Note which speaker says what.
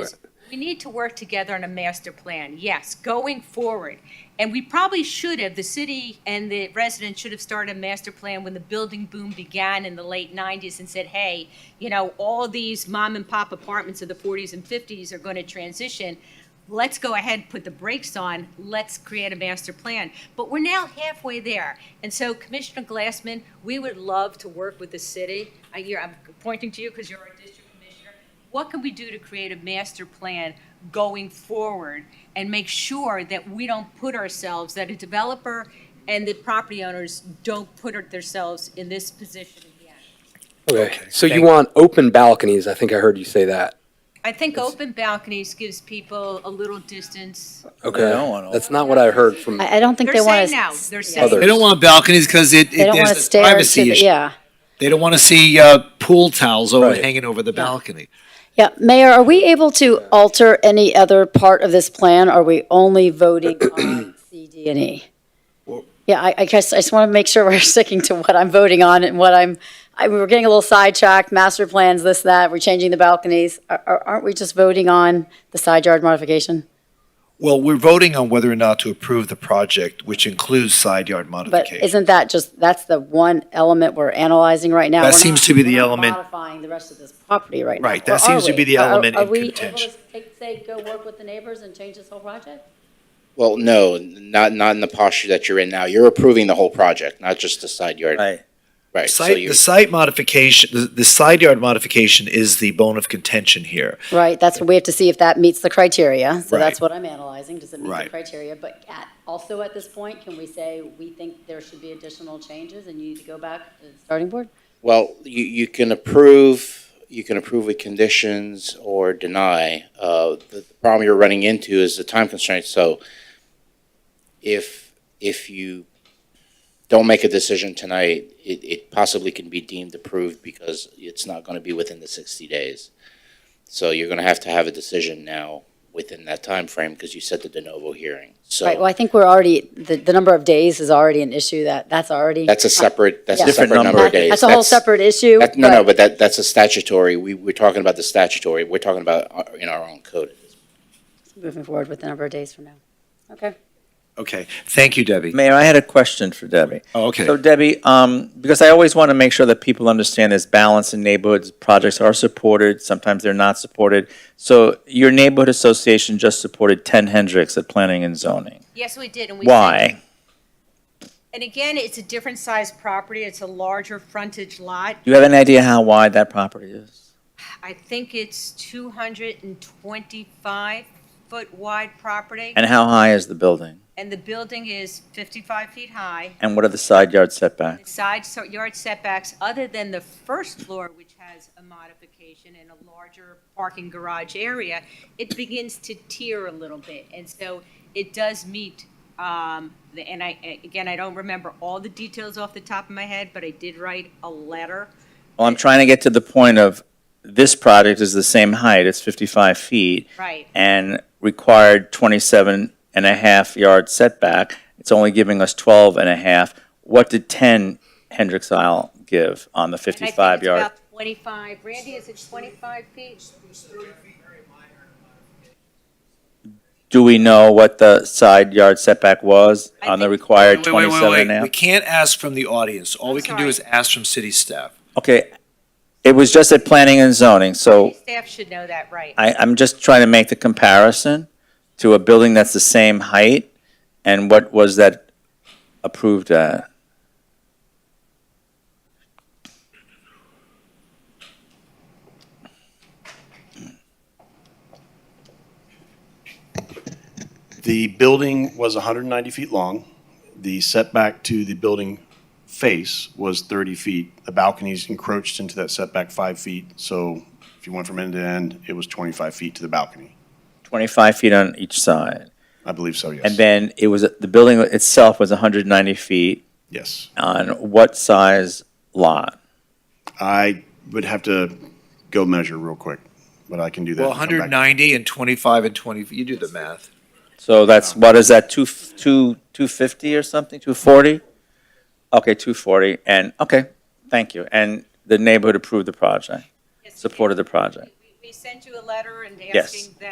Speaker 1: is we need to work together on a master plan, yes, going forward. And we probably should have, the city and the residents should have started a master plan when the building boom began in the late nineties and said, hey, you know, all these mom and pop apartments of the forties and fifties are gonna transition. Let's go ahead, put the brakes on, let's create a master plan. But we're now halfway there. And so Commissioner Glassman, we would love to work with the city. I, you're, I'm pointing to you because you're our district commissioner what can we do to create a master plan going forward and make sure that we don't put ourselves, that a developer and the property owners don't put themselves in this position again?
Speaker 2: Okay, so you want open balconies, I think I heard you say that.
Speaker 1: I think open balconies gives people a little distance.
Speaker 2: Okay,
Speaker 3: don't want
Speaker 2: that's not what I heard from,
Speaker 4: I, I don't think
Speaker 1: They're
Speaker 4: they want
Speaker 1: saying
Speaker 4: to.
Speaker 1: no, they're
Speaker 2: Other.
Speaker 1: saying,
Speaker 3: They don't want balconies because it,
Speaker 4: They
Speaker 3: it
Speaker 4: don't want to
Speaker 3: there's a
Speaker 4: stare into
Speaker 3: privacy
Speaker 4: the,
Speaker 3: issue.
Speaker 4: yeah.
Speaker 3: They don't want to see uh, pool towels over
Speaker 2: Right.
Speaker 3: hanging over the balcony.
Speaker 4: Yeah, Mayor, are we able to alter any other part of this plan? Are we only voting on C, D, and E? Yeah, I, I guess, I just want to make sure we're sticking to what I'm voting on and what I'm, I, we were getting a little sidetracked, master plans, this, that, we're changing the balconies. Are- Are, aren't we just voting on the side yard modification?
Speaker 5: Well, we're voting on whether or not to approve the project, which includes side yard
Speaker 4: But
Speaker 5: modification.
Speaker 4: isn't that just, that's the one element we're analyzing right now?
Speaker 5: That
Speaker 4: We're not-
Speaker 5: seems to be the
Speaker 4: we're not
Speaker 5: element-
Speaker 4: Modifying the rest of this property right now.
Speaker 5: Right,
Speaker 4: or
Speaker 5: that seems
Speaker 4: are
Speaker 5: to be
Speaker 4: we?
Speaker 5: the
Speaker 4: Are-
Speaker 5: element
Speaker 4: Are
Speaker 5: in
Speaker 4: we able
Speaker 5: contention.
Speaker 4: to take- say, go work with the neighbors and change this whole project?
Speaker 6: Well, no, not, not in the posture that you're in now. You're approving the whole project, not just the side yard.
Speaker 3: Right.
Speaker 6: Right, so
Speaker 5: Site,
Speaker 6: you,
Speaker 5: the site modification, the, the side yard modification is the bone of contention here.
Speaker 4: Right, that's what we have to see if that meets the criteria. So
Speaker 5: Right.
Speaker 4: that's what I'm analyzing, does it meet the
Speaker 5: Right.
Speaker 4: criteria? But at, also at this point, can we say, we think there should be additional changes and you need to go back to the starting board?
Speaker 6: well, you, you can approve, you can approve with conditions or deny. Uh, the the problem you're running into is the time constraint, so if, if you don't make a decision tonight, it, it possibly can be deemed approved because it's not gonna be within the sixty days. So you're gonna have to have a decision now within that time frame because you set the de novo hearing, so.
Speaker 4: Right, well, I think we're already, the, the number of days is already an issue that, that's already.
Speaker 6: That's a separate, that's a
Speaker 4: Different
Speaker 6: separate number of
Speaker 4: That-
Speaker 6: days.
Speaker 4: That's a whole separate issue.
Speaker 6: that- No,
Speaker 4: but-
Speaker 6: no, but that, that's a statutory, we, we're talking about the statutory, we're talking about our- in our own code.
Speaker 4: Moving forward with the number of days from now. Okay.
Speaker 5: Okay, thank you, Debbie.
Speaker 7: Mayor, I had a question for Debbie.
Speaker 5: Oh, okay.
Speaker 7: So Debbie, um, because I always want to make sure that people understand there's balance in neighborhoods. Projects are supported, sometimes they're not supported. So your neighborhood association just supported 10 Hendricks at planning and zoning.
Speaker 1: yes, we did, and we. said-
Speaker 7: Why?
Speaker 1: And again, it's a different size property, it's a larger frontage lot.
Speaker 7: Do you have any idea how wide that property is?
Speaker 1: I think it's two hundred and twenty-five foot wide property,
Speaker 7: And how high is the building?
Speaker 1: and the building is fifty-five feet high.
Speaker 7: And what are the side yard setbacks?
Speaker 1: side so- yard setbacks, other than the first floor, which has a modification and a larger parking garage area, it begins to tier a little bit. And so it does meet, um, the- and I, a- again, I don't remember all the details off the top of my head, but I did write a letter.
Speaker 7: Well, I'm trying to get to the point of, this project is the same height, it's 55 feet.
Speaker 1: Right.
Speaker 7: And required 27 and a half yard setback. It's only giving us 12 and a half. What did 10 Hendricks Isle give on
Speaker 1: And
Speaker 7: the
Speaker 1: I think
Speaker 7: 55
Speaker 1: it's
Speaker 7: yard?
Speaker 1: about Twenty-five, Randy, is it twenty-five feet?
Speaker 7: Do we know what the side yard setback was
Speaker 1: I
Speaker 7: on the
Speaker 1: think-
Speaker 7: required
Speaker 5: Wait, wait, wait,
Speaker 7: 27 and a
Speaker 5: wait. We
Speaker 7: half?
Speaker 5: can't ask from the audience. All we can do
Speaker 1: sorry.
Speaker 5: is ask from city staff.
Speaker 7: Okay, it was just at planning and zoning, so
Speaker 1: Staff should know that, right?
Speaker 7: I, I'm just trying to make the comparison to a building that's the same height, and what was that approved uh, at?
Speaker 8: The building was 190 feet long. The setback to the building face was 30 feet. The balconies encroached into that setback five feet, so if you went from end to end, it was 25 feet to the balcony.
Speaker 7: Twenty-five feet on each side,
Speaker 8: I believe so, yes.
Speaker 7: and then it was, the building itself was hundred and ninety feet
Speaker 8: Yes.
Speaker 7: on what size lot?
Speaker 8: I would have to go measure real quick, but I can do that.
Speaker 5: Well,
Speaker 8: and come back.
Speaker 5: 190 and 25 and 20, you do the math.
Speaker 7: So that's, what is that, two, f- two, two fifty or something, two forty? Okay, two forty, and, okay, thank you, and the neighborhood approved the project,
Speaker 1: Yes, we did.
Speaker 7: supported the project.
Speaker 1: We- we they send you a letter and
Speaker 7: Yes.
Speaker 1: asking them?